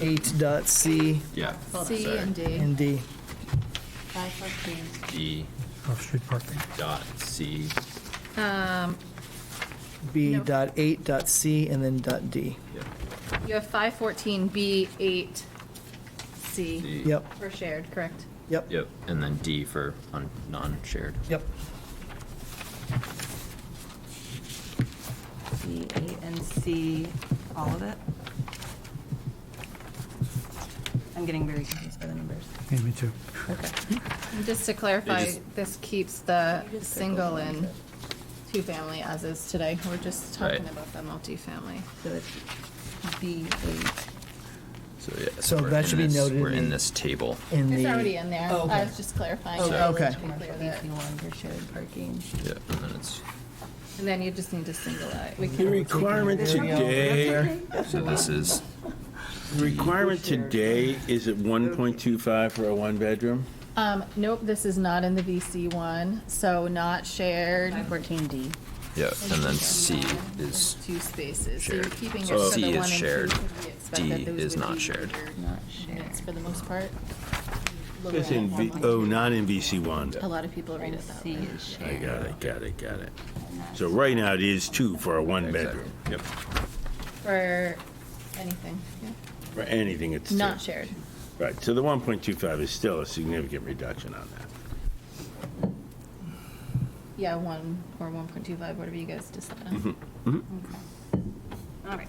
eight dot C Yeah. C sorry. and D. and D. Five fourteen. D off-street parking. dot C. B Nope. dot eight dot C and then dot D. Yep. You have five fourteen B eight C D. Yep, for shared, correct? yep, Yep. And then D for un- non-shared. yep. C, eight, and C, all of it? I'm getting very confused by the numbers. Yeah, me too. Okay. And Just to clarify, just- this keeps the single and two-family as is today. We're just talking Right. about the multifamily. So it's B, eight. So yeah. So we're that in should be this- noted We're in in the- this table. In the. It's already in there. Oh, I okay. was just clarifying. Oh, that okay. to be clear that- one for shared parking. Yeah. And then it's And then you just need to single out. We The can, requirement today, so this is the requirement today is at 1.25 for a one-bedroom? um, nope, this is not in the VC one, so not shared. Five fourteen D. yeah. And then C is Two spaces. So you're shared. keeping it So for C the is one and two. shared. because we expect that D those is would not be shared. bigger Not units shared. For the most part. Lower It's in, end V- one. oh, not in VC1. A lot of people read And it that C way. is I shared. got it, got it, got it. So right now, it is two for a one-bedroom. Yep. For anything, yeah. For anything, it's two. Not shared. Right, so the 1.25 is still a significant reduction on that. Yeah, one or one point two five, whatever you guys decide Mm-hmm. on. All right.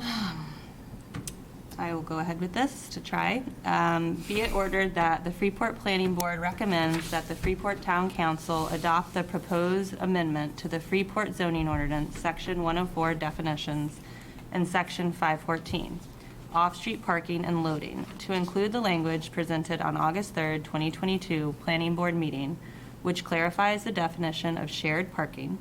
Um, I will go ahead with this to try. Um, Be it ordered that the Freeport Planning Board recommends that the Freeport Town Council adopt the proposed amendment to the Freeport zoning ordinance, Section 104 definitions, and Section 514, off-street parking and loading, to include the language presented on August 3rd, 2022 Planning Board meeting, which clarifies the definition of shared parking,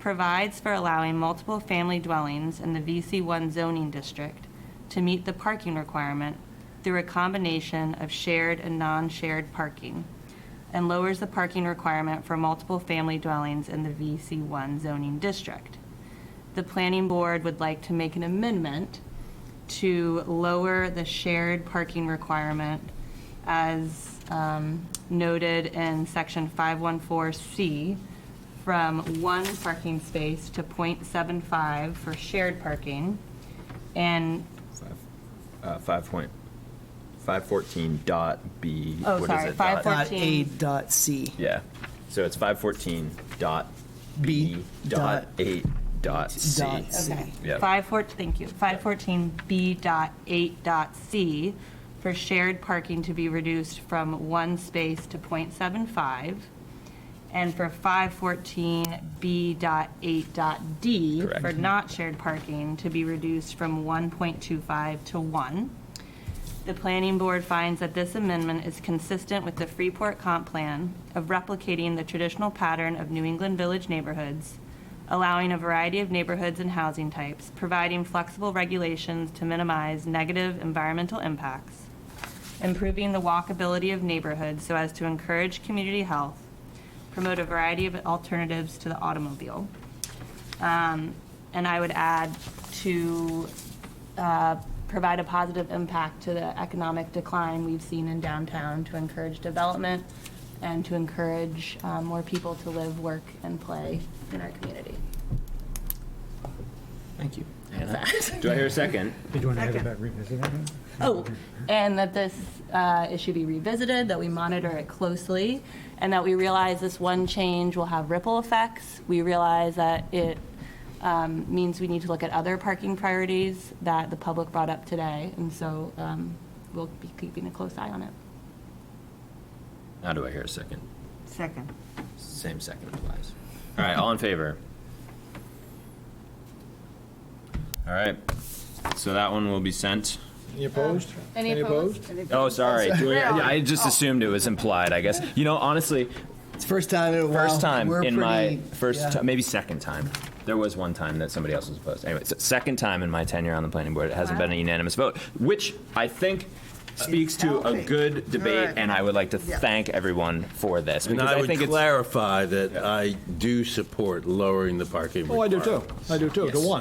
provides for allowing multiple family dwellings in the VC1 zoning district to meet the parking requirement through a combination of shared and non-shared parking, and lowers the parking requirement for multiple family dwellings in the VC1 zoning district. The planning board would like to make an amendment to lower the shared parking requirement as um, noted in section 514C from one parking space to .75 for shared parking, and, Five. Uh, five point. Five fourteen dot B. Oh, what is sorry, it? five Dot- four- Dot A 14. dot C. Yeah. So it's five fourteen dot B dot eight dot C. Dot C. Yep. Five four, thank you, five fourteen B dot eight dot C for shared parking to be reduced from one space to .75, And for five fourteen B dot eight dot D Correct. for not shared parking to be reduced from one point two five to one. The planning board finds that this amendment is consistent with the Freeport comp plan of replicating the traditional pattern of New England Village neighborhoods, allowing a variety of neighborhoods and housing types, providing flexible regulations to minimize negative environmental impacts, improving the walkability of neighborhoods so as to encourage community health, promote a variety of alternatives to the automobile. Um, And I would add to uh, provide a positive impact to the economic decline we've seen in downtown to encourage development and to encourage um, more people to live, work, and play in our community. Thank you. Do I hear a second? Did you want to add about revisiting? Oh, and that this uh, issue be revisited, that we monitor it closely, and that we realize this one change will have ripple effects. We realize that it um, means we need to look at other parking priorities that the public brought up today, and so um, we'll be keeping a close eye on it. How do I hear a second? Second. Same second applies. All right, all in favor? All right, so that one will be sent. Any opposed? Any opposed? Oh, sorry. Do we- I just Oh. assumed it was implied, I guess. You know, honestly, It's first time in a while. first time We're in my, pretty- yeah. first, ti- maybe second time. There was one time that somebody else was opposed. Anyway, so second time in my tenure on the planning board, it hasn't been a unanimous vote, which I think speaks to a good debate, and I would like to thank everyone for this. And because I would think it's- clarify that I do support lowering the parking Oh, I requirement. do too. I do too, to Yes. one.